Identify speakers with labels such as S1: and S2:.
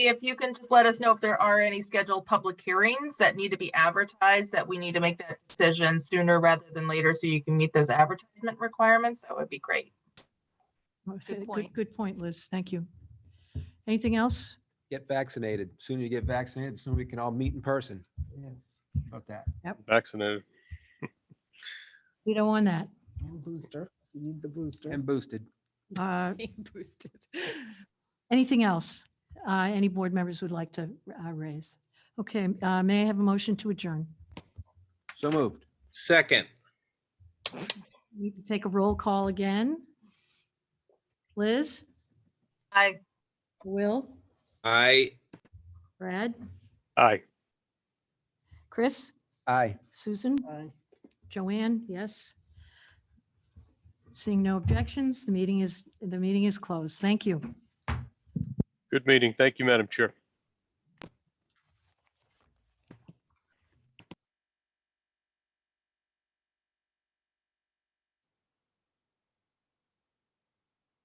S1: if you can just let us know if there are any scheduled public hearings that need to be advertised, that we need to make that decision sooner rather than later, so you can meet those advertisement requirements, that would be great.
S2: Oh, so
S3: point.
S2: Good point, Liz. Thank you. Anything else?
S4: Get vaccinated. Sooner you get vaccinated, the sooner we can all meet in person.
S5: Yes,
S4: How About that.
S6: vaccinated.
S2: We don't want that.
S5: and booster, you need the booster.
S4: And boosted.
S2: Uh,
S3: Being boosted.
S2: Anything else uh, any board members would like to uh, raise? Okay, uh, may I have a motion to adjourn?
S4: So moved.
S7: Second,
S2: We can Take a roll call again. Liz,
S1: I,
S2: Will,
S7: I
S2: Brad,
S6: Aye.
S2: Chris,
S4: Aye.
S2: Susan,
S5: Aye.
S2: Joanne, yes. Seeing no objections, the meeting is, the meeting is closed. Thank you.
S6: Good meeting. Thank you, Madam Chair.